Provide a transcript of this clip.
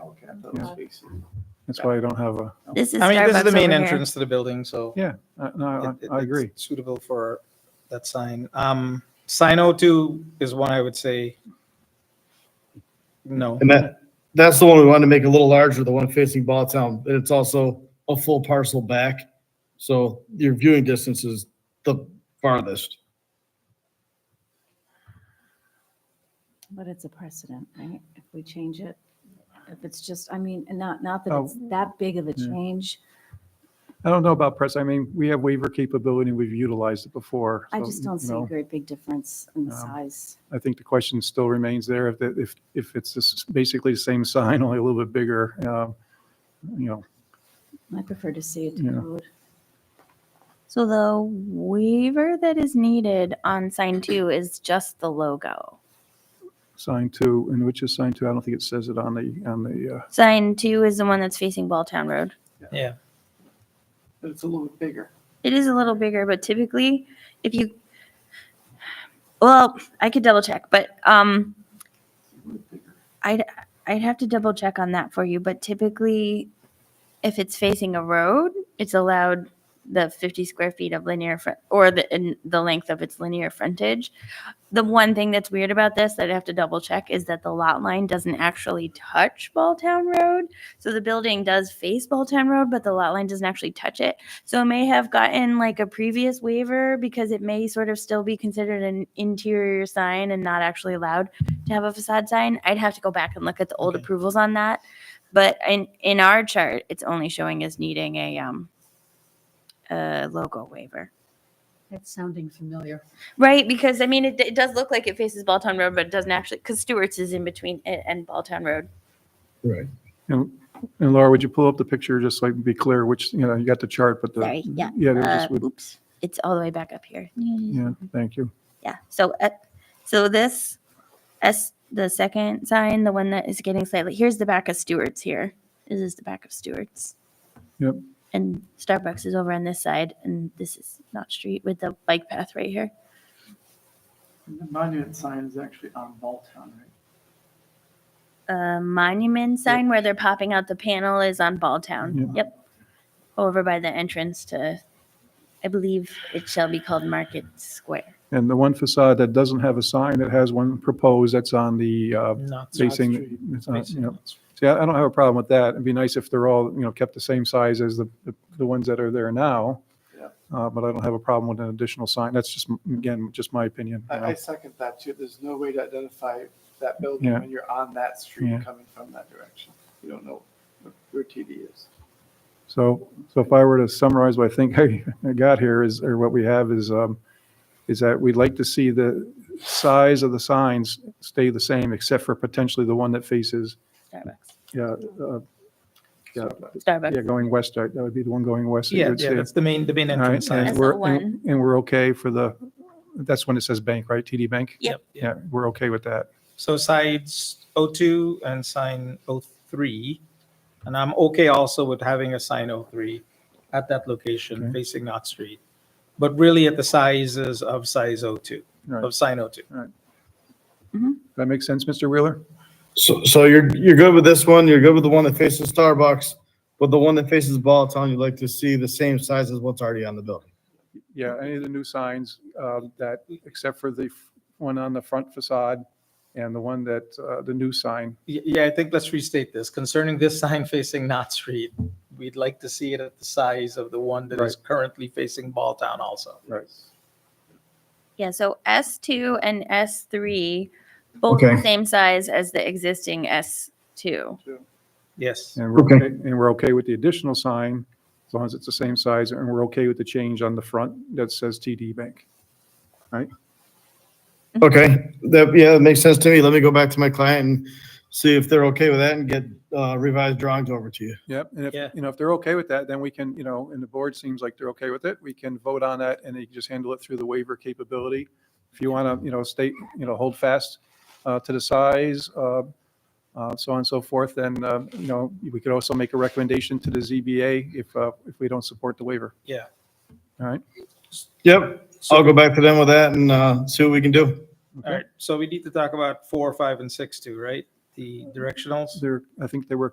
half of those spaces. That's why I don't have a, This is I mean, this is the Starbucks main over here. entrance to the building, so. yeah, I- no, it- it- Uh, I, I it's agree. Suitable for that sign. Um, sign O two is one I would say. No, And that, that's the one we wanted to make a little larger, the one facing Balltown, but it's also a full parcel back. So your viewing distance is the farthest. But it's a precedent, right? If we change it, if it's just, I mean, and not, not that Oh. it's that big of a Yeah. change. I don't know about press. I mean, we have waiver capability. We've utilized it before. I so, just don't you see a know, great big difference in the Um, size. I think the question still remains there if, the- if, if it's this- basically the same sign, only a little bit bigger, um, you know, I prefer to see it to Yeah. code. So the waiver that is needed on sign two is just the logo. sign two, and which is sign two, I don't think it says it on the, on the, uh, Sign two is the one that's facing Balltown Road. yeah. But it's a little bit bigger. It is a little bigger, but typically, if you, well, I could double check, but um, It's a little bit bigger. I'd I'd have to double check on that for you. But typically, if it's facing a road, it's allowed the 50 square feet of linear front or the in the length of its linear frontage. The one thing that's weird about this that I have to double check is that the lot line doesn't actually touch Balltown Road. So the building does face Balltown Road, but the lot line doesn't actually touch it. So it may have gotten like a previous waiver because it may sort of still be considered an interior sign and not actually allowed to have a facade sign. I'd have to go back and look at the old Okay. approvals on that. But in in our chart, it's only showing as needing a um a logo waiver. That's sounding familiar. Right, because I mean, it, it does look like it faces Balltown Road, but it doesn't actually, because Stewart's is in between it and Balltown Road. Right. and and Laura, would you pull up the picture just so I can be clear which, you know, you got the chart, but the. Sorry, yeah. Yeah, they Uh, just would, oops, it's all the way back up here. yeah, thank you. Yeah. So, uh, so this S, the second sign, the one that is getting slightly, here's the back of Stewart's here. This is the back of Stewart's. Yep. And Starbucks is over on this side and this is not street with the bike path right here. The monument sign is actually on Balltown, right? A monument sign where they're popping out the panel is on Balltown. Yep. Yep. Over by the entrance to, I believe it shall be called Market Square. And the one facade that doesn't have a sign, that has one proposed, that's on the, uh, Not facing, it's on, you know, See, I I don't have a problem with that. It'd be nice if they're all, you know, kept the same size as the, the- the ones that are there now. Yeah. Uh, but I don't have a problem with an additional sign. That's just, m- again, just my opinion. you know. I, I second that too. There's no way to identify that building Yeah. when you're on that Yeah. street coming from that direction. You don't know what your TD is. So, so if I were to summarize what I think I I got here is, or what we have is, um, is that we'd like to see the size of the signs stay the same, except for potentially the one that faces, Starbucks. yeah, uh, yeah, Starbucks. yeah, going west, right? that would be the one going west. that you Yeah, would yeah, see. that's the main, the main All right, entrance and sign. we're- That's the and- one. And we're okay for the, that's when it says bank, right? TD Bank? Yep. Yeah, we're okay with that. So sides O two and sign O three. And I'm okay also with having a sign O three at that location Okay. facing Knott Street. But really at the sizes of size O two, Right. of sign O two. That makes sense, Mr. Wheeler? So, so you're, you're good with this one, you're good with the one that faces Starbucks, but the one that faces Balltown, you'd like to see the same size as what's already on the building. Yeah, any of the new signs um, that, except for the f- one on the front facade and the one that, uh, the new sign. Y- Yeah, I think let's restate this. Concerning this sign facing Knott Street, we'd like to see it at the size of the one that is currently facing Balltown also. Right. Yeah, so S2 and S3, both the Okay. same size as the existing S2. Yes. And we're, Okay. okay- and we're okay with the additional sign, as long as it's the same size, and we're okay with the change on the front that says TD Bank. Okay, that, yeah, that makes sense to me. Let me go back to my client and see if they're okay with that and get uh, revised drawings over to you. Yep, and Yeah. if, you know, if they're okay with that, then we can, you know, and the board seems like they're okay with it, we can vote on that and they can just handle it through the waiver capability. If you want to, you know, state, you know, hold fast uh, to the size, uh, uh, so on and so forth, then, uh, you know, we could also make a recommendation to the ZBA if, uh, if we don't support the waiver. Yeah. All right, Yep, I'll go back to them with that and uh, see what we can do. All right, so we need to talk about four, five, and six too, right? The directionals? there, I think they were